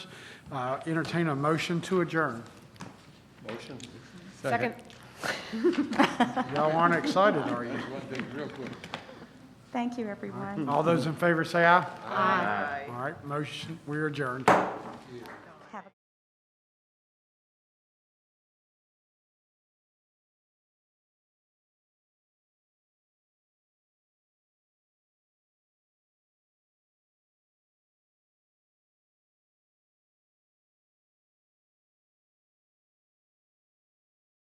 Uh, Entertain a motion to adjourn. Motion. Second. Y'all aren't excited, are you? One thing, real quick. Thank you, everyone. All those in favor say aye. Aye. All right, motion, we're adjourned.